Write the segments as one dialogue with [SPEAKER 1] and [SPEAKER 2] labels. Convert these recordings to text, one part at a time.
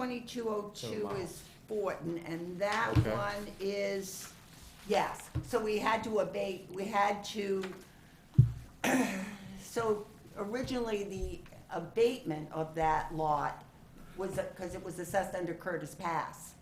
[SPEAKER 1] Twenty-two oh two
[SPEAKER 2] mile.
[SPEAKER 1] is Fortin, and that
[SPEAKER 2] Okay.
[SPEAKER 1] one is, yes, so we had to abate, we had to, so originally, the abatement of that lot was, because it was assessed under Curtis Pass.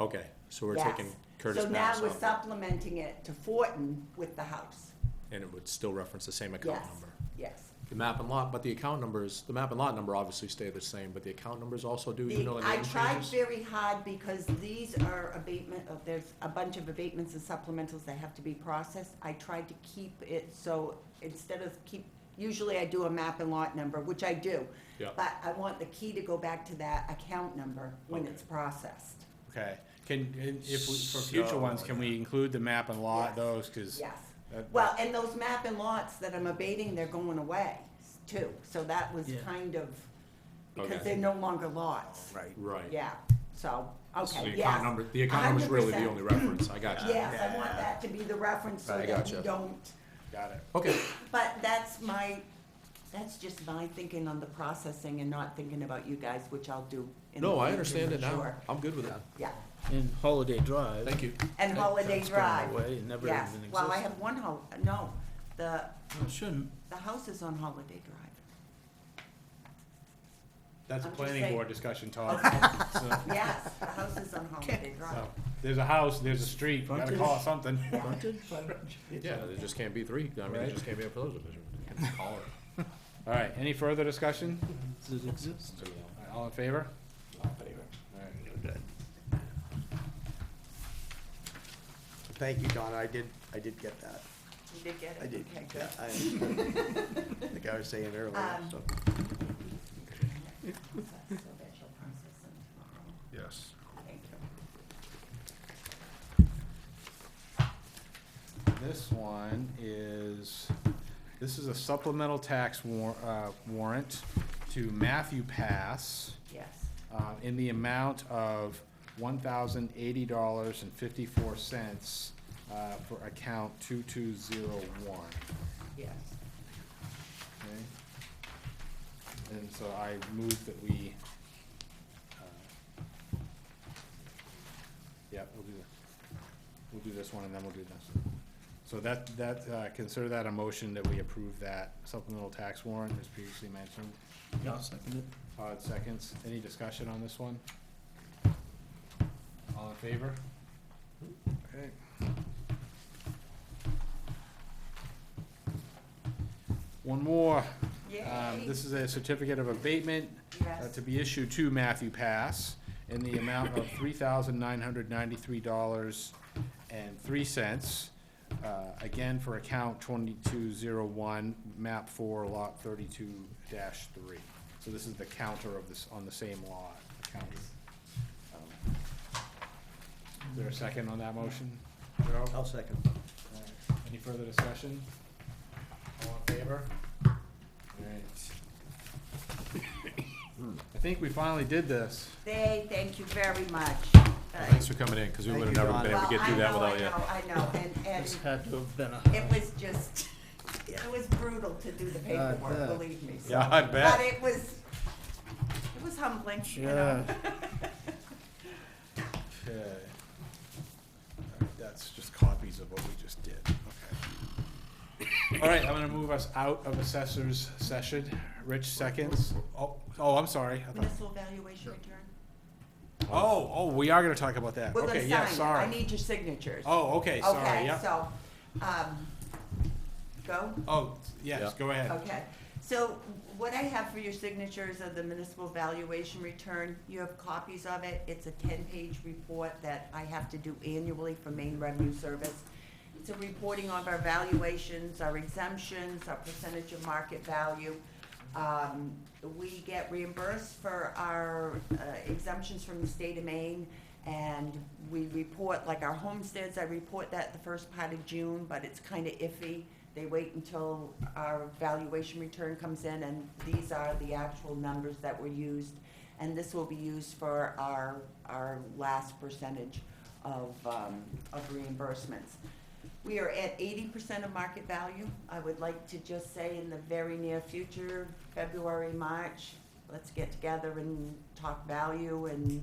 [SPEAKER 2] Okay, so we're
[SPEAKER 1] yes.
[SPEAKER 2] taking Curtis Pass
[SPEAKER 1] So now we're
[SPEAKER 2] off,
[SPEAKER 1] supplementing it to Fortin with the house,
[SPEAKER 2] and it would still reference the same account
[SPEAKER 1] yes,
[SPEAKER 2] number.
[SPEAKER 1] yes.
[SPEAKER 2] The map and lot, but the account numbers, the map and lot number obviously stay the same, but the account numbers also do, even
[SPEAKER 1] The-
[SPEAKER 2] though the
[SPEAKER 1] I
[SPEAKER 2] name
[SPEAKER 1] tried
[SPEAKER 2] changes?
[SPEAKER 1] very hard because these are abatement, of- there's a bunch of abatements and supplementals that have to be processed. I tried to keep it so instead of keep, usually I do a map and lot number, which I do.
[SPEAKER 2] Yeah.
[SPEAKER 1] But I want the key to go back to that account number when it's processed.
[SPEAKER 3] Okay, can, and if, we- for future ones, can we include the map and
[SPEAKER 1] Yes.
[SPEAKER 3] lot, those, cause?
[SPEAKER 1] Yes.
[SPEAKER 3] that-
[SPEAKER 1] Well, and those map and lots that I'm abating, they're going away too. So that was
[SPEAKER 3] Yeah.
[SPEAKER 1] kind of, because
[SPEAKER 2] Okay.
[SPEAKER 1] they're no longer lots.
[SPEAKER 3] Right.
[SPEAKER 2] Right.
[SPEAKER 1] Yeah, so,
[SPEAKER 2] So
[SPEAKER 1] okay,
[SPEAKER 2] the account
[SPEAKER 1] yes.
[SPEAKER 2] number, the account number's really the
[SPEAKER 1] 100%.
[SPEAKER 2] only reference, I got you.
[SPEAKER 1] Yes, I want that to be the reference so
[SPEAKER 2] I
[SPEAKER 1] that we
[SPEAKER 2] gotcha.
[SPEAKER 1] don't,
[SPEAKER 3] Got it.
[SPEAKER 2] Okay,
[SPEAKER 1] but that's my, that's just my thinking on the processing and not thinking about you guys, which I'll do in the
[SPEAKER 2] no, I
[SPEAKER 1] future,
[SPEAKER 2] understand it now,
[SPEAKER 1] sure.
[SPEAKER 2] I'm good with it,
[SPEAKER 1] Yeah,
[SPEAKER 4] And Holiday Drive.
[SPEAKER 2] thank you.
[SPEAKER 1] and
[SPEAKER 4] That-
[SPEAKER 1] Holiday
[SPEAKER 4] that's gone
[SPEAKER 1] Drive,
[SPEAKER 4] away. It never
[SPEAKER 1] yes,
[SPEAKER 4] even
[SPEAKER 1] well, I
[SPEAKER 4] existed.
[SPEAKER 1] have one hol, no, the,
[SPEAKER 4] Well, it Shouldn't.
[SPEAKER 1] the house is on Holiday Drive.
[SPEAKER 3] That's a
[SPEAKER 1] I'm just
[SPEAKER 3] planning
[SPEAKER 1] saying-
[SPEAKER 3] board discussion, Todd. So,
[SPEAKER 1] Yes, the house is on Holiday Drive,
[SPEAKER 3] so, There's a house, there's a street, you gotta call it
[SPEAKER 4] Frontage.
[SPEAKER 3] something.
[SPEAKER 4] Frontage?
[SPEAKER 2] Yeah, there just can't be three, I mean, there
[SPEAKER 3] Right.
[SPEAKER 2] just can't be a pillar division. Call it.
[SPEAKER 3] All right, any further discussion?
[SPEAKER 4] Does it exist?
[SPEAKER 3] All right, All in favor? All right.
[SPEAKER 5] Thank you, Donna, I did, I did get that,
[SPEAKER 1] you did get it?
[SPEAKER 5] I did,
[SPEAKER 1] Okay,
[SPEAKER 5] yeah,
[SPEAKER 1] good.
[SPEAKER 5] I, like I was saying earlier,
[SPEAKER 1] Um,
[SPEAKER 5] so.
[SPEAKER 1] So that she'll process them tomorrow.
[SPEAKER 2] Yes.
[SPEAKER 1] Thank you.
[SPEAKER 3] This one is, this is a supplemental tax war, uh, warrant to Matthew Pass.
[SPEAKER 1] Yes,
[SPEAKER 3] uh, in the amount of one thousand eighty dollars and fifty-four cents, uh, for account two-two-zero-one,
[SPEAKER 1] yes,
[SPEAKER 3] okay? And so I move that we, uh, yeah, we'll do, the- we'll do this one and then we'll do this. So that, that, uh, consider that a motion that we approve that supplemental tax warrant as previously mentioned.
[SPEAKER 4] Yeah, I'll second it.
[SPEAKER 3] Todd seconds. Any discussion on this one? All in favor? Okay. One more. Um,
[SPEAKER 1] Yay.
[SPEAKER 3] This is a certificate of abatement uh,
[SPEAKER 1] yes.
[SPEAKER 3] to be issued to Matthew Pass in the amount of three thousand nine hundred ninety-three dollars and three cents. uh, Again, for account twenty-two zero one, map four, lot thirty-two three. So this is the counter of this, on the same lot, the counter. Is there a second on that motion?
[SPEAKER 5] I'll second.
[SPEAKER 3] Any further discussion? All in favor? Alright. I think we finally did this.
[SPEAKER 1] They, thank you very much. Uh,
[SPEAKER 2] Thanks for coming in, cause we
[SPEAKER 5] Thank
[SPEAKER 2] would've
[SPEAKER 5] you,
[SPEAKER 2] never been able to
[SPEAKER 1] Well,
[SPEAKER 2] get through
[SPEAKER 1] I
[SPEAKER 2] that
[SPEAKER 1] know,
[SPEAKER 2] without you.
[SPEAKER 1] I know, I know, and,
[SPEAKER 4] This
[SPEAKER 1] and
[SPEAKER 4] had to have been a.
[SPEAKER 1] it was just, it was brutal to do the paperwork,
[SPEAKER 4] bet.
[SPEAKER 1] believe me. so-
[SPEAKER 3] Yeah, I
[SPEAKER 1] But
[SPEAKER 3] bet.
[SPEAKER 1] it was, it was humbling, you know?
[SPEAKER 3] Okay. Alright, That's just copies of what we just did, okay. Alright, I'm gonna move us out of assessors session. Rich seconds. Oh, oh, I'm sorry. I thought-
[SPEAKER 1] Municipal valuation return.
[SPEAKER 3] Oh, oh, we are gonna talk about that.
[SPEAKER 1] We're
[SPEAKER 3] Okay,
[SPEAKER 1] gonna
[SPEAKER 3] yeah,
[SPEAKER 1] sign it. I
[SPEAKER 3] sorry.
[SPEAKER 1] need your signatures.
[SPEAKER 3] Oh, okay, sorry,
[SPEAKER 1] Okay,
[SPEAKER 3] yeah.
[SPEAKER 1] so, um, go?
[SPEAKER 3] Oh, yes,
[SPEAKER 2] Yeah.
[SPEAKER 3] go ahead.
[SPEAKER 1] Okay, so what I have for your signatures of the municipal valuation return, you have copies of it. It's a ten-page report that I have to do annually for Maine Revenue Service. It's a reporting of our valuations, our exemptions, our percentage of market value. Um, we get reimbursed for our uh, exemptions from the state of Maine, and we report, like our homesteads, I report that the first part of June, but it's kinda iffy. They wait until our valuation return comes in, and these are the actual numbers that were used. And this will be used for our, our last percentage of, um, of reimbursements. We are at eighty percent of market value. I would like to just say in the very near future, February, March, let's get together and talk value and